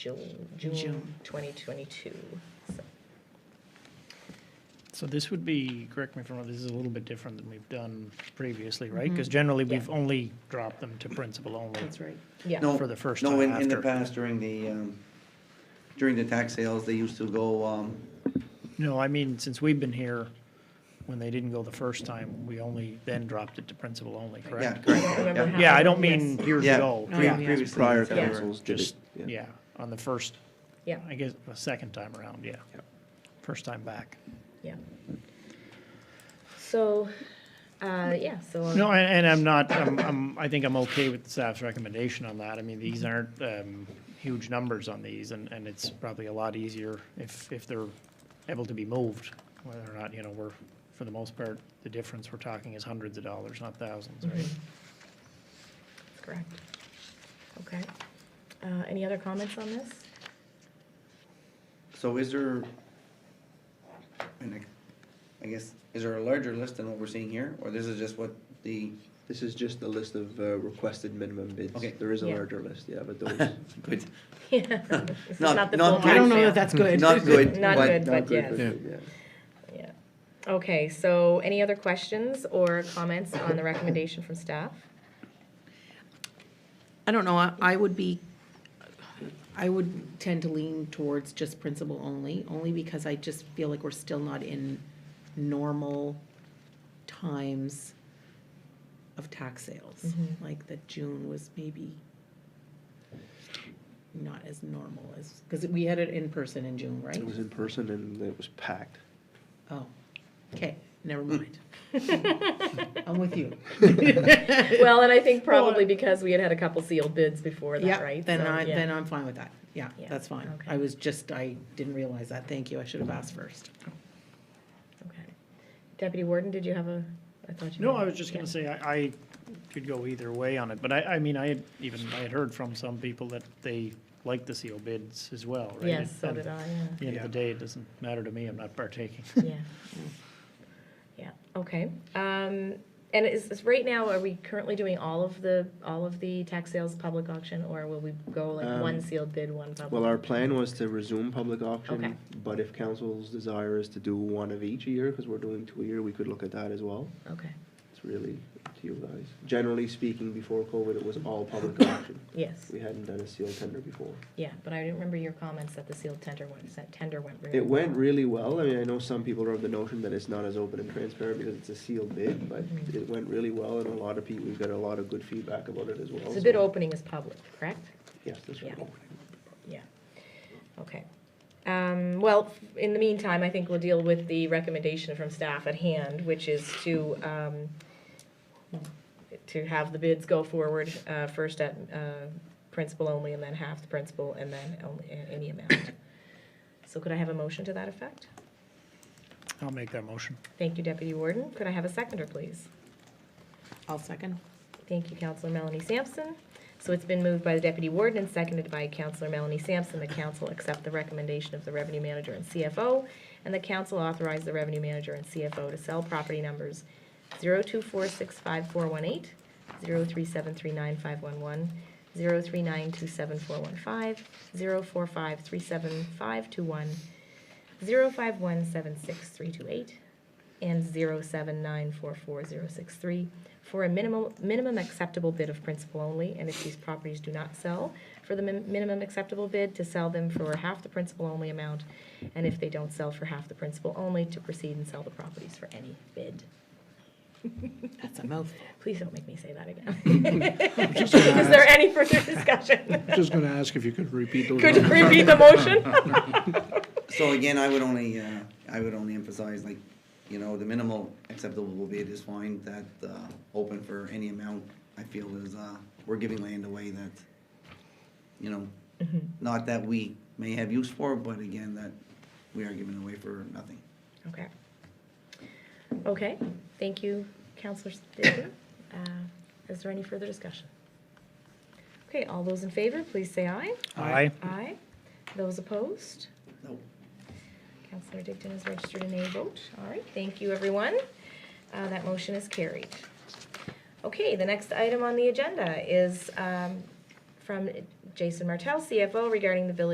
June, June. June 2022. So, So this would be, correct me if I'm wrong, this is a little bit different than we've done previously, right? Because generally, we've only dropped them to principal only. Mm-hmm. That's right. Yeah. No, for the first No, time in, in the after. past during the, um, during the tax sales, they used to go, um, No, I mean, since we've been here, when they didn't go the first time, we only then dropped it to principal only, yeah, correct? I don't correct. remember yeah, how Yeah, I many- don't yes. mean years Yeah. Oh, ago. yeah. Yeah, yeah. Previously, prior Yeah. councils did it, just, yeah. yeah, on the first, Yeah, I guess, the second time around, yeah. First time back. yeah. So, uh, yeah, so. uh, No, and, and I'm not, I'm, I'm, I think I'm okay with the staff's recommendation on that. I mean, these aren't, um, huge numbers on these and, and it's probably a lot easier if, if they're able to be moved, whether or not, you know, we're, for the most part, the difference we're talking is hundreds of dollars, not thousands, right? That's Correct. Okay. Uh, Any other comments on this? So is there, and I- I guess, is there a larger list than what we're seeing here, or this is just what the, This is just a list of uh, requested minimum bids. Okay. There is a Yeah. larger list, yeah, but those, good, This is Not- not the not full good. I don't know time sale. that that's good. not good, Not but good, not but good, yes. but yeah. Yeah. Okay, so any other questions or comments on the recommendation from staff? I don't know, I- I would be, I would tend to lean towards just principal only, only because I just feel like we're still not in normal times of tax sales. Like that June was maybe not as normal as, because we had it in person in June, right? It was in person and it was packed. Oh, okay, never mind. I'm with you. Well, and I think probably because we had had a couple sealed bids before that, Yeah, right? then So, I, yeah. then I'm fine with that. Yeah, Yeah, that's fine. okay. I was just, I didn't realize that. Thank you. I should have asked first. Okay. Deputy Warden, did you have a, I thought you. No, had- I was just gonna yeah. say, I, I could go either way on it, but I, I mean, I had even, I had heard from some people that they like the seal bids as well, right? Yes, so And did I, At the end of the day, it doesn't matter to me, I'm not partaking. yeah. Yeah. Yeah, okay. Um, And is, is right now, are we currently doing all of the, all of the tax sales public auction? Or will we go like Um, one sealed bid, one public? Well, our plan was to resume public Okay. auction, but if council's desire is to do one of each a year, because we're doing two a year, we could look at that as well. Okay, It's really up to you guys. Generally speaking, before COVID, it was all public auction. yes, We hadn't done a sealed tender before. yeah, but I didn't remember your comments that the sealed tender went, that tender went really It went well. really well. I mean, I know some people are of the notion that it's not as open and transparent because it's a sealed bid, but Mhm. it went really well, and a lot of people, we've got a lot of good feedback about it as well. So the so- bid opening is public, correct? Yes, that's right. Yeah. Yeah, okay. Um, Well, in the meantime, I think we'll deal with the recommendation from staff at hand, which is to, um, to have the bids go forward, uh, first at uh, principal only, and then half the principal, and then only- a- any amount. So could I have a motion to that effect? I'll make that motion. Thank you, Deputy Warden. Could I have a seconder, please? I'll second. Thank you, Counselor Melanie Sampson. So it's been moved by the Deputy Warden and seconded by Counselor Melanie Sampson. The council accept the recommendation of the Revenue Manager and CFO, and the council authorize the Revenue Manager and CFO to sell property numbers 024654118, 037395111, 039274115, 045375210, 051763280, and 0794463 for a minimum, minimum acceptable bid of principal only, and if these properties do not sell, for the min- minimum acceptable bid, to sell them for half the principal only amount, and if they don't sell for half the principal only, to proceed and sell the properties for any bid. That's a mouthful. Please don't make me say that again. Is there any further discussion? Just going to ask if you could repeat those. Could you numbers. repeat the motion? so again, I would only, uh, I would only emphasize, like, you know, the minimal acceptable bid is fine, that, uh, open for any amount, I feel is, uh, we're giving land away that, you know, not that we may have use for, but again, that we are giving away for nothing. Okay. Okay, thank you, Counselor Staley. Uh, Is there any further discussion? Okay, all those in favor, please say aye. Aye. Aye. Those opposed? No. Counselor Digdon is registered in a vote. All right, thank you, everyone. Uh, That motion is carried. Okay, the next item on the agenda is um, from Jason Martell, CFO, regarding the village